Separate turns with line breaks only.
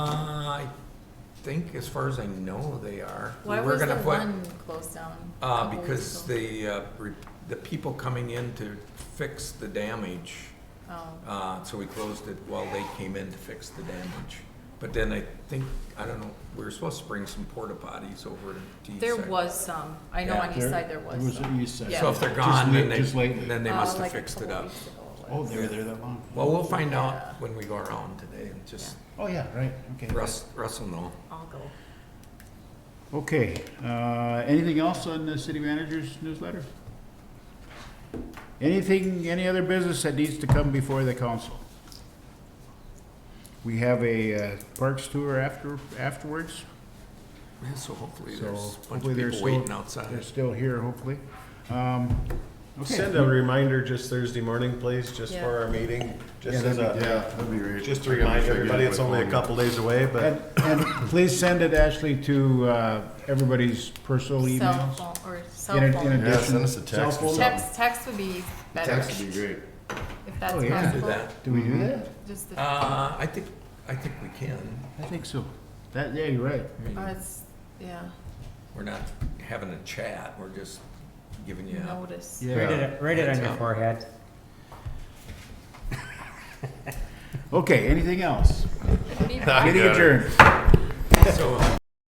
Uh, I think, as far as I know, they are. We
Why
were
was the
gonna put-
one closed down? a
Uh,
couple
because
weeks ago?
the, uh, re- the people coming in to fix the damage,
Oh,
uh, so we closed it while they came in to fix the damage. But then I think, I don't know, we were supposed to bring some porta potties over to East
there
Side.
was some, I know
Yeah.
on east side there
It
was
was
some.
on the east side.
Yeah.
So if they're
Just
gone,
late-
then they,
Just lately.
then they
Uh,
must have
like a
fixed it
couple
up.
weeks ago it
Oh,
was.
they were there that long?
Well, we'll find
Yeah.
out when we go around today, and just,
Oh, yeah, right, okay.
Russ, Russ will know.
I'll go.
Okay, uh, anything else on the city manager's newsletter? Anything, any other business that needs to come before the council? We have a uh, parks tour after, afterwards,
Yeah, So hopefully
so
there's a bunch
hopefully
of
they're
people
still.
waiting outside.
They're still here, hopefully. Um, okay.
Send a reminder just Thursday morning, please, just
Yeah.
for our meeting,
Yeah,
just as
that'd be
a,
great.
that'd be great.
just to remind everybody, it's only a couple days away, but
And, and please send it, Ashley, to uh, everybody's personal
Cell
emails.
phone, or
In
cell
a- in
phone.
Yeah,
addition-
send us a text
cell
or
phone-
something.
Text, text would be better,
Text would
if
be great.
that's
Oh, yeah.
Do
possible.
that.
Do we do that?
Just the, oh,
Uh, I think, I think we can.
I think so. That, yeah, you're right.
I mean,
it's, yeah,
We're not having a chat, we're just giving you, a-
notice.
Yeah.
Write it, write it on your
Yeah.
forehead.
Okay, anything else?
What do you-
Meeting adjourned.
so.